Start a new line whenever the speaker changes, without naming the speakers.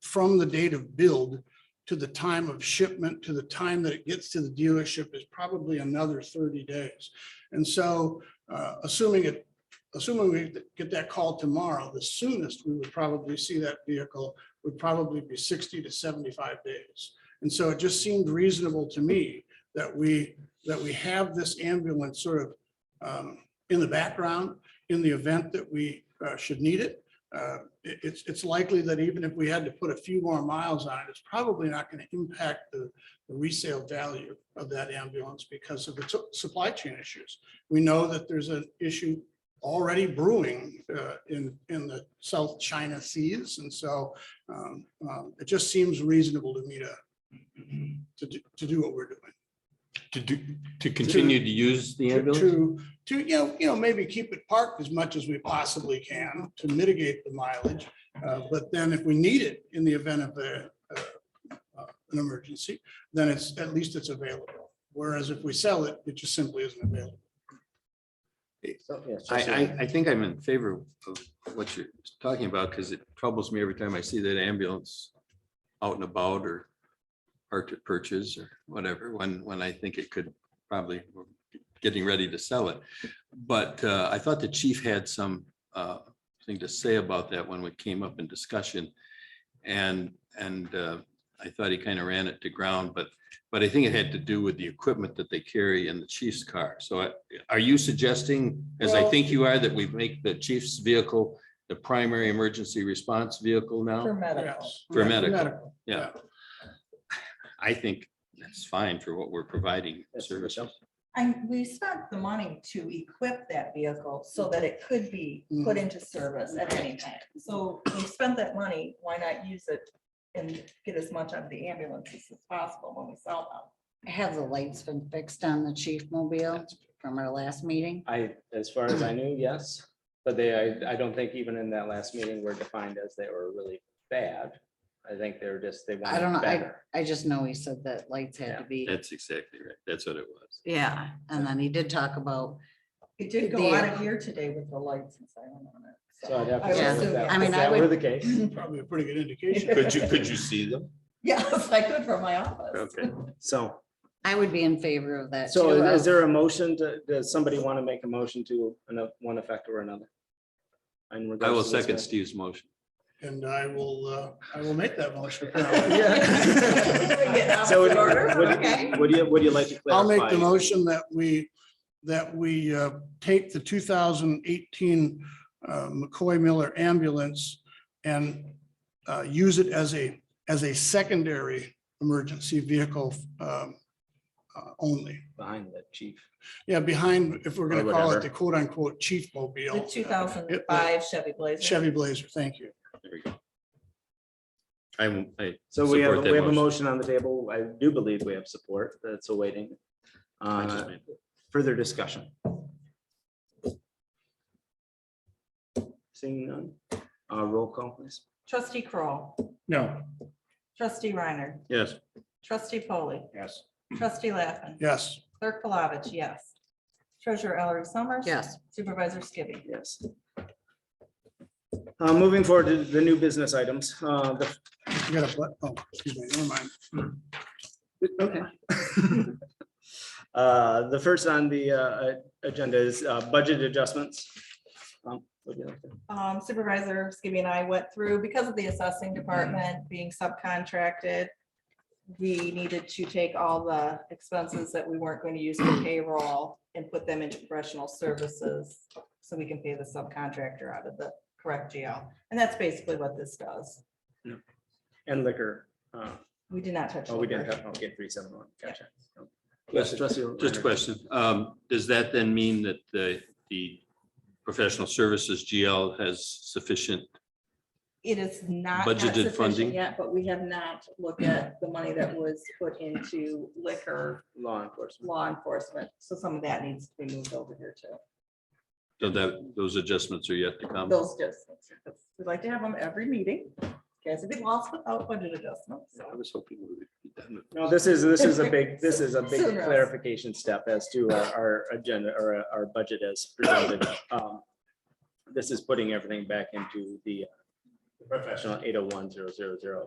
from the date of build to the time of shipment, to the time that it gets to the dealership is probably another thirty days. And so uh, assuming it, assuming we get that call tomorrow, the soonest we would probably see that vehicle would probably be sixty to seventy-five days. And so it just seemed reasonable to me that we, that we have this ambulance sort of um, in the background in the event that we uh, should need it. Uh, it- It's, it's likely that even if we had to put a few more miles on it, it's probably not going to impact the the resale value of that ambulance because of its supply chain issues. We know that there's an issue already brewing uh, in, in the South China Seas. And so um, um, it just seems reasonable to me to, to, do- to do what we're doing.
To do, to continue to use the
to-
ambulance?
To, to, you know, you know, maybe keep it parked as much as we possibly can to mitigate the mileage. Uh, But then if we need it in the event of a, uh, uh, an emergency, then it's, at least it's available. Whereas if we sell it, it just simply isn't available.
I, I, I think I'm in favor of what you're talking about because it troubles me every time I see that ambulance out and about or hard to purchase or whatever, when, when I think it could probably we're getting ready to sell it. But uh, I thought the chief had some uh, thing to say about that when we came up in discussion. And, and uh, I thought he kind of ran it to ground, but, but I think it had to do with the equipment that they carry in the chief's car. So I- are you suggesting, as I
Well-
think you are, that we make the chief's vehicle the primary emergency response vehicle now?
Yes.
For
Oh, Yeah,
medical. Yeah. I think that's fine for what we're providing
That's what it
services.
I, we spent the money to equip that vehicle so that it could be put
Mhm.
into service at any time. So we spent that money, why not use it and get as much out of the ambulances as possible when we sell them?
Have the lights been fixed on the chief mobile from our last meeting?
I, as far as I knew, yes, but they, I, I don't think even in that last meeting were defined as they were really bad. I think they were just, they
I don't know,
wanted
I,
better.
I just know he said that lights had to be,
That's exactly right. That's what it was.
yeah, and then he did talk about,
It did go
There.
out of here today with the lights and silent on it.
So I'd have
I
to. check
would
if that-
I mean,
if
I
that were
would-
the case.
Probably a pretty good indication.
Could you, could you see them?
Yes, I could from my office.
Okay.
So,
I would be in favor of that.
so
too,
is
of-
there a motion to, does somebody want to make a motion to ano- one effect or another? In
I will
regards to this
second
matter?
Steve's motion.
And I will, uh, I will make that motion.
Yeah. So would-
Order,
would-
okay.
Would you, would you like to
I'll
clarify?
make the motion that we, that we uh, take the two thousand eighteen uh, McCoy Miller ambulance and uh, use it as a, as a secondary emergency vehicle um, uh, only.
Behind the chief.
Yeah, behind, if we're
Or
gonna call it the
whatever.
quote unquote chief
The
mobile.
two thousand five Chevy Blazer.
uh, Chevy Blazer, thank you.
There we go. I'm, I.
So we have,
support that
we have a motion on the table. I do believe we have support that's awaiting.
I
Uh,
just made it.
Further discussion? Seeing none, uh, roll call please.
Trustee Kroll,
No.
trustee Reiner,
Yes.
trustee Polly,
Yes.
trustee Laffin,
Yes,
clerk Palovich, yes. Treasurer Ellery Summers.
Yes,
Supervisor Skibby.
Yes. Uh, moving forward to the new business items, uh, the
you got a, bu- oh, excuse me, never mind.
Okay. The first on the uh, agenda is uh, budget adjustments. Um, would you like to-
Um, Supervisor Skibby and I went through, because of the assessing department being subcontracted, we needed to take all the expenses that we weren't going to use for payroll and put them into professional services so we can pay the subcontractor out of the correct GL. And that's basically what this does.
And liquor. uh,
We did not touch.
Oh, we didn't
liquor.
have, okay, three seven one, gotcha.
Yes,
Trustee
Just a
Reiner.
question. Um, does that then mean that the, the professional services GL has sufficient?
It is not. not
Budgeted
sufficient
funding?
Yet, but we have not looked at the money that was put into liquor
Law enforcement.
law enforcement, so some of that needs to be moved over here too.
So that, those adjustments are yet to come?
Those just, we like to have them every meeting, guys have been lost without budget adjustments.
I was hoping we would be done with.
No, this is, this is a big, this is a big
Sooner.
clarification step as to our- our agenda or our- our budget as presented. Um, This is putting everything back into the professional eight uh, oh one zero zero zero